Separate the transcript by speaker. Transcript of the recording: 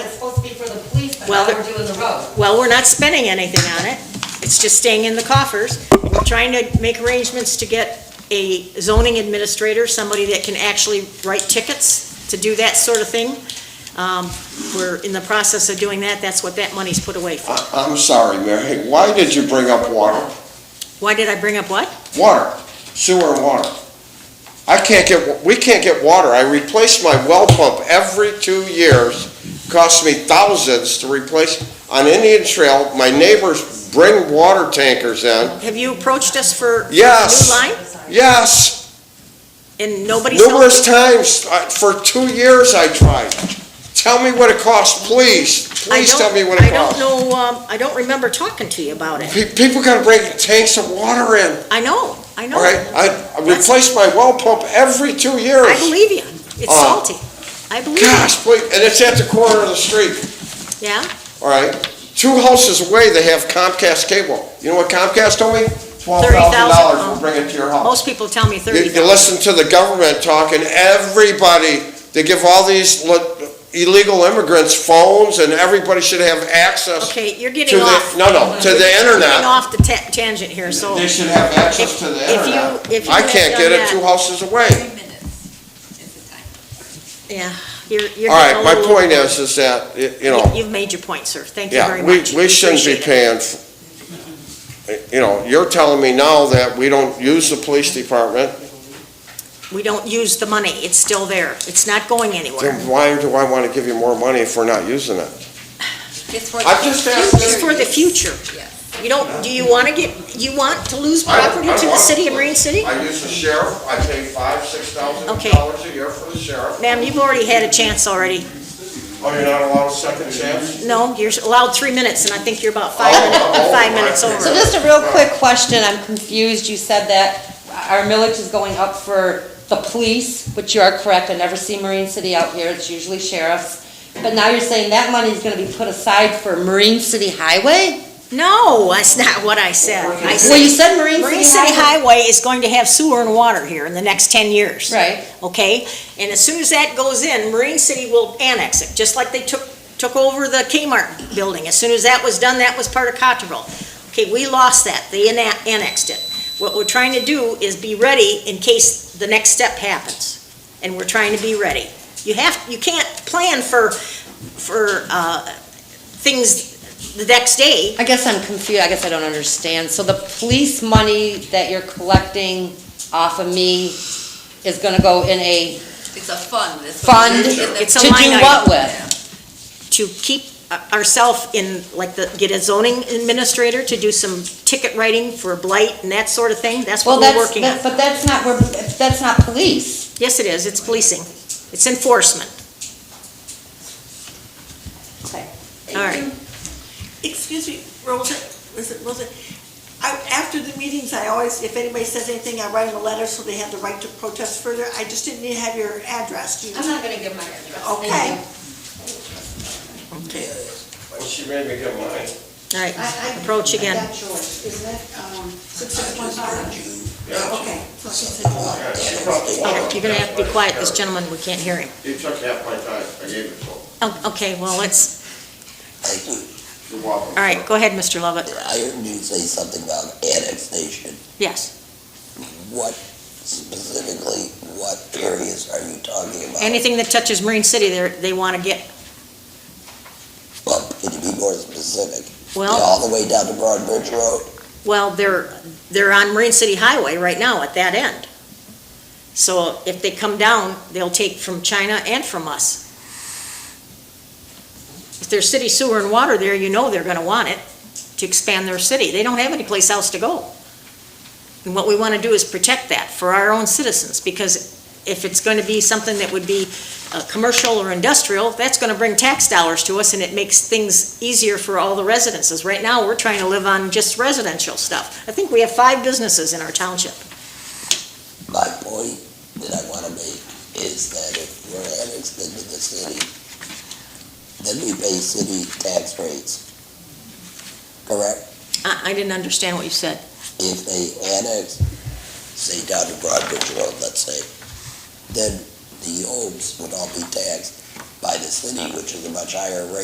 Speaker 1: But
Speaker 2: Well,
Speaker 1: now
Speaker 2: the-
Speaker 1: we're doing the road.
Speaker 2: Well, we're not spending anything on it. It's just staying in the coffers. We're trying to make arrangements to get a zoning administrator, somebody that can actually write tickets to do that sort of thing. Um, We're in the process of doing that. That's what that money's put away for.
Speaker 3: I- I'm sorry, Mary, why did you bring up water?
Speaker 2: Why did I bring up what?
Speaker 3: Water, sewer and water. I can't get, we can't get water. I replace my well pump every two years. Costs me thousands to replace. On Indian Trail, my neighbors bring water tankers in.
Speaker 2: Have you approached us for for a
Speaker 3: Yes.
Speaker 2: new line?
Speaker 3: Yes,
Speaker 2: And nobody's helped?
Speaker 3: numerous times, I- for two years I tried. Tell me what it costs, please.
Speaker 2: I
Speaker 3: Please
Speaker 2: don't.
Speaker 3: tell me what it
Speaker 2: I don't
Speaker 3: costs.
Speaker 2: know, um, I don't remember talking to you about it.
Speaker 3: Pe- People gotta bring tanks of water in.
Speaker 2: I know, I know.
Speaker 3: All right, I, I replace my well pump every two years.
Speaker 2: I believe you. It's
Speaker 3: Oh.
Speaker 2: salty. I believe you.
Speaker 3: Gosh, please, and it's at the corner of the street,
Speaker 2: Yeah?
Speaker 3: all right? Two houses away, they have Comcast cable. You know what Comcast told me? Twelve thousand dollars,
Speaker 2: $30,000.
Speaker 3: we'll bring it to your house.
Speaker 2: Most people tell me
Speaker 3: You,
Speaker 2: thirty
Speaker 3: you
Speaker 2: thousand.
Speaker 3: listen to the government talking, everybody, they give all these le- illegal immigrants phones, and everybody should have access
Speaker 2: Okay, you're
Speaker 3: to
Speaker 2: getting
Speaker 3: the,
Speaker 2: off,
Speaker 3: no, no, to the
Speaker 2: getting
Speaker 3: internet.
Speaker 2: off the ta- tangent here, so.
Speaker 3: They should have access
Speaker 2: If-
Speaker 3: to the
Speaker 2: if you- if
Speaker 3: internet.
Speaker 2: you
Speaker 3: I
Speaker 2: had
Speaker 3: can't
Speaker 2: done
Speaker 3: get it
Speaker 2: that-
Speaker 3: two houses away.
Speaker 1: Three minutes is the time.
Speaker 2: Yeah, you're, you're.
Speaker 3: All right,
Speaker 2: getting a
Speaker 3: my
Speaker 2: little
Speaker 3: point
Speaker 2: overboard.
Speaker 3: is, is that, y- you
Speaker 2: You-
Speaker 3: know,
Speaker 2: You've made your point, sir. Thank you very
Speaker 3: yeah, we,
Speaker 2: much.
Speaker 3: we shouldn't be
Speaker 2: Appreciate it.
Speaker 3: paying, f- you know, you're telling me now that we don't use the police department,
Speaker 2: We don't use the money. It's still there. It's not going anywhere.
Speaker 3: then why do I want to give you more money if we're not using it?
Speaker 1: It's for.
Speaker 3: I'm
Speaker 2: It's
Speaker 3: just asking,
Speaker 2: for the future.
Speaker 1: Yes.
Speaker 2: You don't, do you want to get, you want to lose
Speaker 3: I don't-
Speaker 2: property
Speaker 3: I
Speaker 2: to the
Speaker 3: want
Speaker 2: city of
Speaker 3: to.
Speaker 2: Marine City?
Speaker 3: I use the sheriff, I pay five, six thousand
Speaker 2: Okay.
Speaker 3: dollars a year for the sheriff.
Speaker 2: Ma'am, you've already had a chance already.
Speaker 3: Oh, you're not allowed a second chance?
Speaker 2: No, you're allowed three minutes, and I think you're about five,
Speaker 3: Oh,
Speaker 2: minute-
Speaker 3: oh,
Speaker 2: five
Speaker 3: I-
Speaker 2: minutes over.
Speaker 4: So just a real quick question, I'm confused, you said that our millage is going up for the police, which you are correct, I never see Marine City out here, it's usually sheriffs. But now you're saying that money is gonna be put aside for Marine City Highway?
Speaker 2: No, that's not what I said. I
Speaker 4: Well, you
Speaker 2: said
Speaker 4: said Marine
Speaker 2: Marine
Speaker 4: City
Speaker 2: City
Speaker 4: Highway.
Speaker 2: Highway is going to have sewer and water here in the next ten years.
Speaker 4: Right,
Speaker 2: Okay, and as soon as that goes in, Marine City will annex it, just like they took, took over the Kmart building. As soon as that was done, that was part of Cotterville. Okay, we lost that, they anna- annexed it. What we're trying to do is be ready in case the next step happens, and we're trying to be ready. You have, you can't plan for, for, uh, things the next day,
Speaker 4: I guess I'm confused, I guess I don't understand, so the police money that you're collecting off of me is gonna go in a
Speaker 1: It's a fund. It's what
Speaker 4: fund
Speaker 1: we
Speaker 4: to
Speaker 1: use in the-
Speaker 2: It's a
Speaker 4: do
Speaker 2: line item.
Speaker 4: what with?
Speaker 2: to keep ourselves in, like, the, get a zoning administrator to do some ticket writing for blight and that sort of thing, that's
Speaker 4: Well,
Speaker 2: what we're
Speaker 4: that's,
Speaker 2: working
Speaker 4: that-
Speaker 2: on.
Speaker 4: but that's not, where- that's not police.
Speaker 2: Yes, it is, it's policing, it's enforcement. All right.
Speaker 5: Excuse me, Rosa, listen, Rosa, I, after the meetings, I always, if anybody says anything, I write them a letter so they have the right to protest further. I just didn't have your address, do you?
Speaker 4: I'm not gonna give my address.
Speaker 5: Okay.
Speaker 3: Well, she made me get mine.
Speaker 2: All right, approach again.
Speaker 5: Is that, um, six six one five? Okay.
Speaker 3: Yeah, she brought the water.
Speaker 2: You're gonna have to be quiet, this gentleman, we can't hear him.
Speaker 3: He took half my time, I gave it to him.
Speaker 2: Oh, Okay, well, let's,
Speaker 3: You're welcome.
Speaker 2: all right, go ahead, Mr. Lovett.
Speaker 6: I heard you say something about annexation.
Speaker 2: Yes,
Speaker 6: What specifically, what areas are you talking about?
Speaker 2: anything that touches Marine City, they're, they wanna get,
Speaker 6: Well, can you be more specific? Yeah,
Speaker 2: well,
Speaker 6: All the way down to Broadbridge Road?
Speaker 2: well, they're, they're on Marine City Highway right now at that end. So if they come down, they'll take from China and from us. If there's city sewer and water there, you know they're gonna want it to expand their city. They don't have any place else to go. And what we wanna do is protect that for our own citizens, because if it's gonna be something that would be, uh, commercial or industrial, that's gonna bring tax dollars to us, and it makes things easier for all the residences. Right now, we're trying to live on just residential stuff. I think we have five businesses in our township.
Speaker 6: My point that I want to make is that if we're annexed into the city, then we pay city tax rates. Correct?
Speaker 2: I, I didn't understand what you said.
Speaker 6: If they annex, say down to Broadbridge Road, let's say, then the homes would all be taxed by the city, which is a much higher rate.